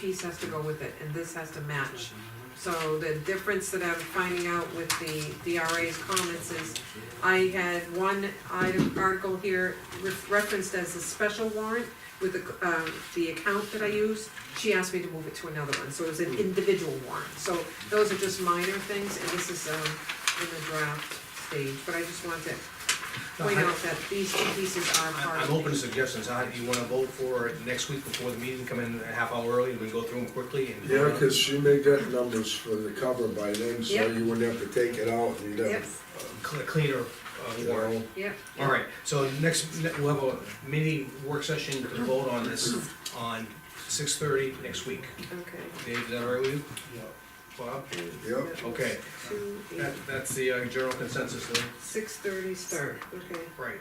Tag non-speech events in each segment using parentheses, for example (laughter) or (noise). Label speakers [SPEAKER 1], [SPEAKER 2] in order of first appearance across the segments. [SPEAKER 1] piece has to go with it, and this has to match. So the difference that I'm finding out with the DRA's comments is, I had one item, article here re- referenced as a special warrant with the, um, the account that I use. She asked me to move it to another one, so it was an individual warrant. So those are just minor things, and this is, um, in the draft stage, but I just wanted to point out that these two pieces are part
[SPEAKER 2] I-
[SPEAKER 1] of
[SPEAKER 2] I'm
[SPEAKER 1] it.
[SPEAKER 2] open to suggestions, I, you wanna vote for it next week before the meeting, come in a half hour early, we can go through them quickly and.
[SPEAKER 3] Yeah, because she may get numbers for the cover by then, so
[SPEAKER 1] Yep.
[SPEAKER 3] you wouldn't have to take it out and you'd
[SPEAKER 1] Yep,
[SPEAKER 3] have,
[SPEAKER 2] Cl- Cleaner, uh,
[SPEAKER 3] you
[SPEAKER 2] warrant.
[SPEAKER 3] know.
[SPEAKER 1] yep.
[SPEAKER 2] All right, so next, ne- we'll have a mini work session to vote on this on six thirty next week.
[SPEAKER 1] Okay.
[SPEAKER 2] Dave, is that all right with you? Bob?
[SPEAKER 3] Yep.
[SPEAKER 1] uh,
[SPEAKER 2] Okay.
[SPEAKER 1] Two,
[SPEAKER 2] That, that's the uh, general consensus then?
[SPEAKER 1] six thirty start, okay.
[SPEAKER 2] Right.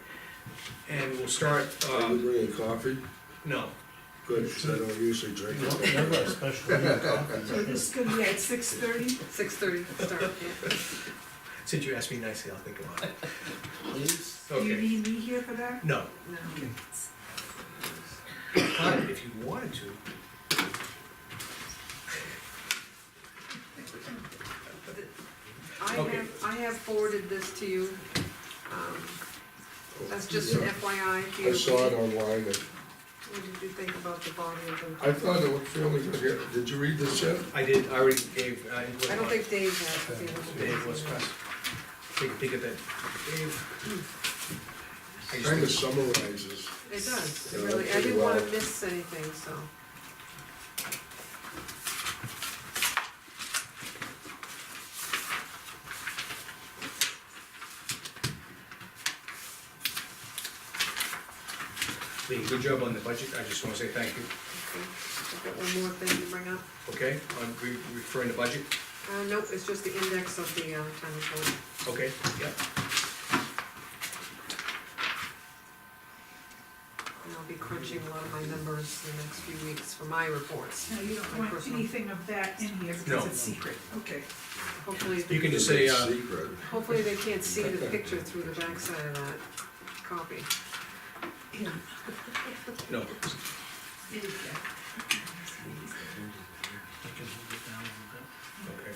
[SPEAKER 2] And we'll start,
[SPEAKER 3] Are you
[SPEAKER 2] um,
[SPEAKER 3] bringing coffee?
[SPEAKER 2] no,
[SPEAKER 3] Good, 'cause I don't usually drink
[SPEAKER 4] No,
[SPEAKER 3] it.
[SPEAKER 4] Never a special meeting conference like this.
[SPEAKER 5] It's gonna be at six thirty?
[SPEAKER 1] Six thirty start, yeah.
[SPEAKER 2] since you asked me nicely, I'll think about it.
[SPEAKER 4] Please,
[SPEAKER 5] Do you
[SPEAKER 2] Okay,
[SPEAKER 5] need me here for that?
[SPEAKER 2] no,
[SPEAKER 1] No.
[SPEAKER 2] but if you wanted to.
[SPEAKER 1] I
[SPEAKER 2] Okay.
[SPEAKER 1] have, I have forwarded this to you. Um, That's just an
[SPEAKER 3] Yeah.
[SPEAKER 1] FYI. if you-
[SPEAKER 3] I saw it online, and
[SPEAKER 1] What did you think about the body of the?
[SPEAKER 3] I thought it looked fairly good, did you read this yet?
[SPEAKER 2] I did, I already gave, uh, input
[SPEAKER 1] I don't
[SPEAKER 2] on
[SPEAKER 1] think Dave has. I think it was-
[SPEAKER 2] Dave was pressed. Take a peek at that, Dave. I just
[SPEAKER 3] Kind of
[SPEAKER 2] think-
[SPEAKER 3] summarizes.
[SPEAKER 1] It does, it
[SPEAKER 3] Yeah,
[SPEAKER 1] really, I
[SPEAKER 3] pretty
[SPEAKER 1] didn't wanna
[SPEAKER 3] well.
[SPEAKER 1] miss anything, so.
[SPEAKER 2] Lee, good job on the budget, I just wanna say thank you,
[SPEAKER 1] okay. I've got one more thing to bring up.
[SPEAKER 2] okay, on re- referring to budget,
[SPEAKER 1] Uh, nope, it's just the index of the, uh, town report.
[SPEAKER 2] okay, yeah.
[SPEAKER 1] And I'll be crunching a lot of my numbers the next few weeks for my reports.
[SPEAKER 5] No, you don't want anything of that in here because
[SPEAKER 2] No.
[SPEAKER 5] it's secret, okay.
[SPEAKER 1] Hopefully,
[SPEAKER 2] You can just say, uh,
[SPEAKER 3] Secret.
[SPEAKER 1] hopefully they can't see the picture through the backside of that copy.
[SPEAKER 5] Yeah.
[SPEAKER 2] no,
[SPEAKER 5] There you go.
[SPEAKER 4] I can move it down a little bit.
[SPEAKER 2] okay.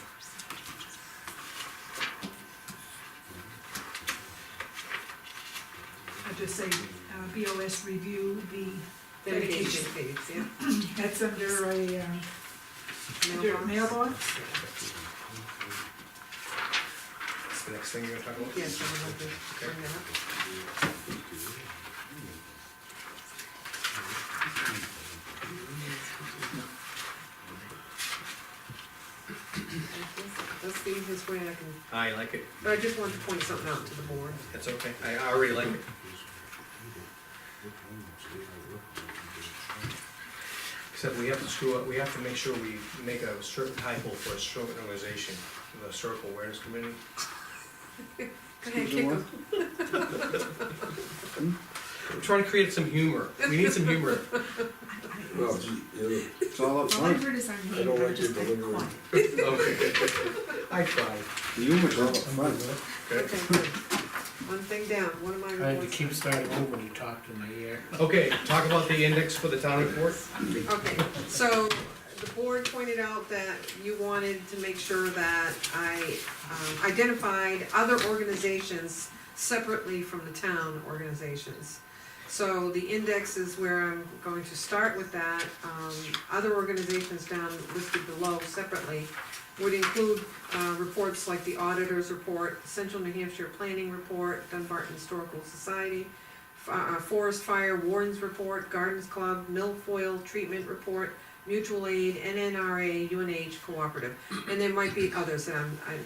[SPEAKER 5] I'll just say, uh, BOS review the,
[SPEAKER 1] Dedication fees, yeah.
[SPEAKER 5] that's under a, uh, under a mailbox.
[SPEAKER 2] That's the next thing you're gonna talk about?
[SPEAKER 1] Yes, I would like to bring that up. Let's see his way I can,
[SPEAKER 2] I like it,
[SPEAKER 1] but I just wanted to point something out to the board.
[SPEAKER 2] that's okay, I I already like it. Except we have to screw up, we have to make sure we make a certain typo for a stroke organization, the historical awareness committee.
[SPEAKER 1] Okay, kick 'em.
[SPEAKER 2] I'm trying to create some humor, we need some humor.
[SPEAKER 3] Well, gee, you
[SPEAKER 6] It's all up
[SPEAKER 5] All I
[SPEAKER 6] front.
[SPEAKER 5] heard is I'm
[SPEAKER 3] I don't
[SPEAKER 5] being
[SPEAKER 3] like your
[SPEAKER 5] just like
[SPEAKER 3] delivery.
[SPEAKER 5] quiet.
[SPEAKER 2] Okay. (laughs) I tried.
[SPEAKER 6] The humor's all up front.
[SPEAKER 1] Okay, good. One thing down, one of my
[SPEAKER 4] I had to
[SPEAKER 1] reports.
[SPEAKER 4] keep starting over when you talked in my ear.
[SPEAKER 2] Okay, talk about the index for the town report.
[SPEAKER 1] Okay, so the board pointed out that you wanted to make sure that I um, identified other organizations separately from the town organizations. So the index is where I'm going to start with that. Um, Other organizations down listed below separately would include uh, reports like the auditor's report, Central New Hampshire Planning Report, Dunbarton Historical Society, uh, Forest Fire Warden's Report, Gardens Club, Milfoil Treatment Report, Mutual Aid, NNRA, UNH Cooperative. And there might be others that I'm, I'm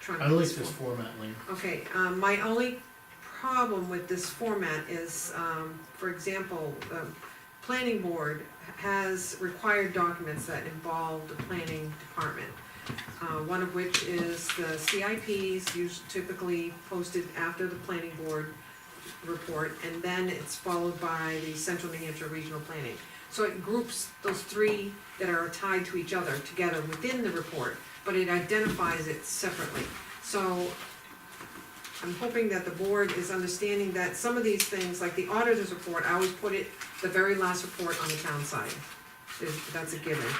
[SPEAKER 1] trying to.
[SPEAKER 4] I like this format, Lean.
[SPEAKER 1] Okay, um, my only problem with this format is, um, for example, the planning board has required documents that involve the planning department. Uh, one of which is the CIPs, usually typically posted after the planning board report, and then it's followed by the Central New Hampshire Regional Planning. So it groups those three that are tied to each other together within the report, but it identifies it separately. So I'm hoping that the board is understanding that some of these things, like the auditor's report, I always put it, the very last report on the town side. is, that's a given.